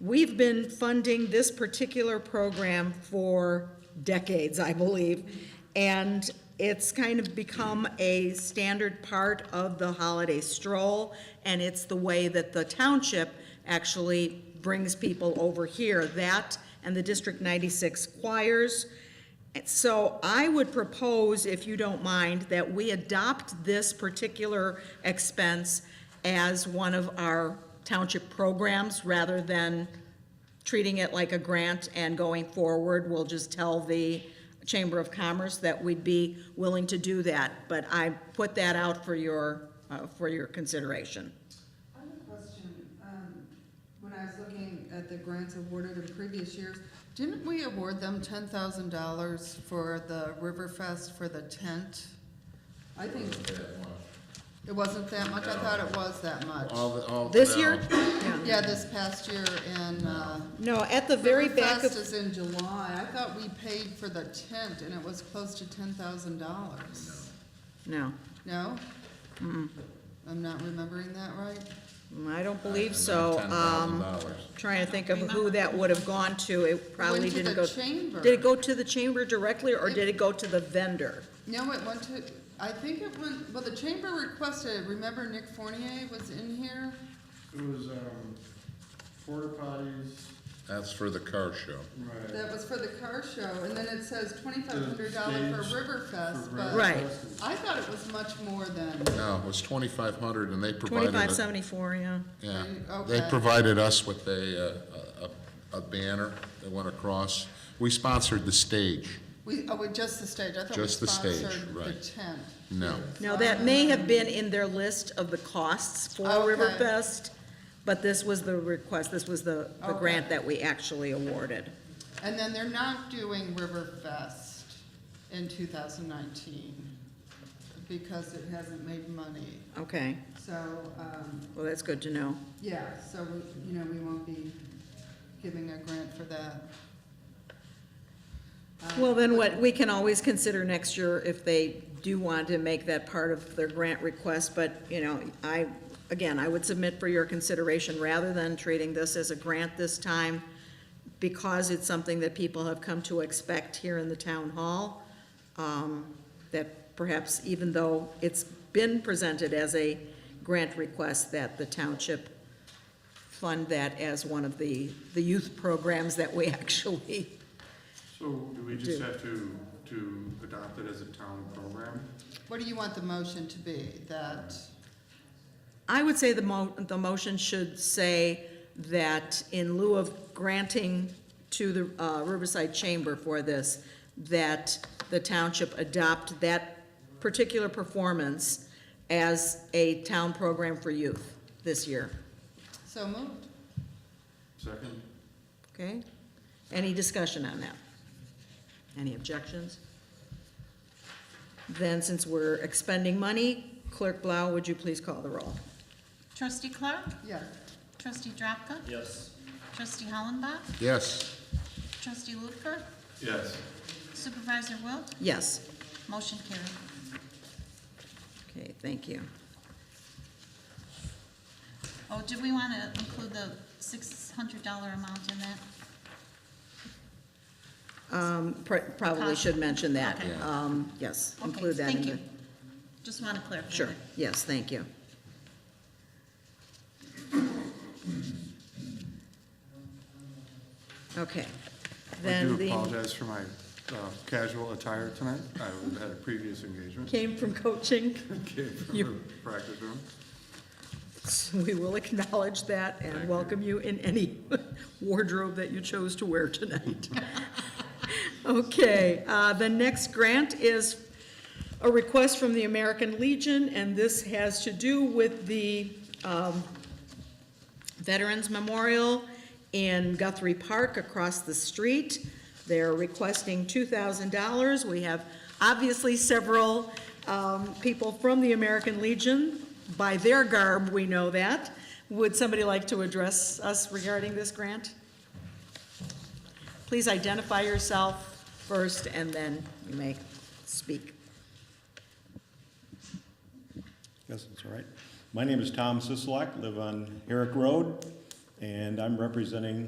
We've been funding this particular program for decades, I believe, and it's kind of become a standard part of the holiday stroll, and it's the way that the township actually brings people over here, that and the District 96 choirs. So I would propose, if you don't mind, that we adopt this particular expense as one of our township programs rather than treating it like a grant and going forward, we'll just tell the Chamber of Commerce that we'd be willing to do that. But I put that out for your, uh, for your consideration. I have a question. Um, When I was looking at the grants awarded in previous years, didn't we award them ten thousand dollars for the Riverfest for the tent? I think it wasn't that much. I thought it was that much. This year? Yeah. Yeah, this past year in, uh, No, at the very back Riverfest of, is in July. I thought we paid for the tent and it was close to ten thousand dollars. no, No? I'm not remembering that right? I don't believe so. Um, Trying to think of who that would have gone to, it probably Went to didn't the go. chamber. Did it go to the chamber directly, or did it go to the vendor? No, it went to, I think it went, well, the chamber requested, remember Nick Fournier was in here? It was, um, porta potties, That's for the car show. right. That was for the car show, and then it says twenty-five hundred dollar for Stage Riverfest, for but Right. breakfast. I thought it was much more than, No, it was twenty-five hundred and they provided. Twenty-five Mm, it- seventy-four, yeah. Yeah, Okay. they provided us with a, uh, a, a banner that went across. We sponsored the stage. we, oh, with just the stage, I thought we Just the stage, sponsored the right. tent. No, Now, that may have been in their list of the costs for Okay. Riverfest, but this was the request, this was the, the Okay. grant that we actually awarded. And then they're not doing Riverfest in two thousand nineteen, because it hasn't made money, Okay, so, um, well, that's good to know. Yeah, so, we- you know, we won't be giving a grant for that. Uh, Well, then what, we can always consider next year if they do want to make that part of their grant request, but, you know, I, again, I would submit for your consideration, rather than treating this as a grant this time, because it's something that people have come to expect here in the town hall, um, that perhaps even though it's been presented as a grant request, that the township fund that as one of the, the youth programs that we actually So do we just Do. have to, to adopt it as a town program? What do you want the motion to be? That, I would say the mo, the motion should say that in lieu of granting to the uh, Riverside Chamber for this, that the township adopt that particular performance as a town program for youth this year, so moved? Second? okay? Any discussion on that? Any objections? Then, since we're expending money, Clerk Blau, would you please call the roll? Trustee Clark? Yeah. Trustee Drapka? Yes. Trustee Hollenbach? yes, Trustee Lutfer? Yes. Supervisor Wilt? Yes? Motion carried. Okay, thank you. Oh, do we want to include the six hundred dollar amount in that? Pr- Probably should mention that. Okay. Um, Yes, Okay, include that in Thank the. you. Just want to clarify. Sure, that. yes, thank you. Okay. I Then do the, apologize for my uh, casual attire tonight. I was at a previous engagement. came from coaching, Came from You- the practice room. so we will acknowledge that Thank and you. welcome you in any wardrobe that you chose to wear tonight. Okay, uh, the next grant is a request from the American Legion, and this has to do with the um, Veterans Memorial in Guthrie Park across the street. They're requesting $2,000. We have obviously several um, people from the American Legion. By their garb, we know that. Would somebody like to address us regarding this grant? Please identify yourself first, and then you may speak. Yes, that's all right. My name is Tom Sisolak, live on Herrick Road, and I'm representing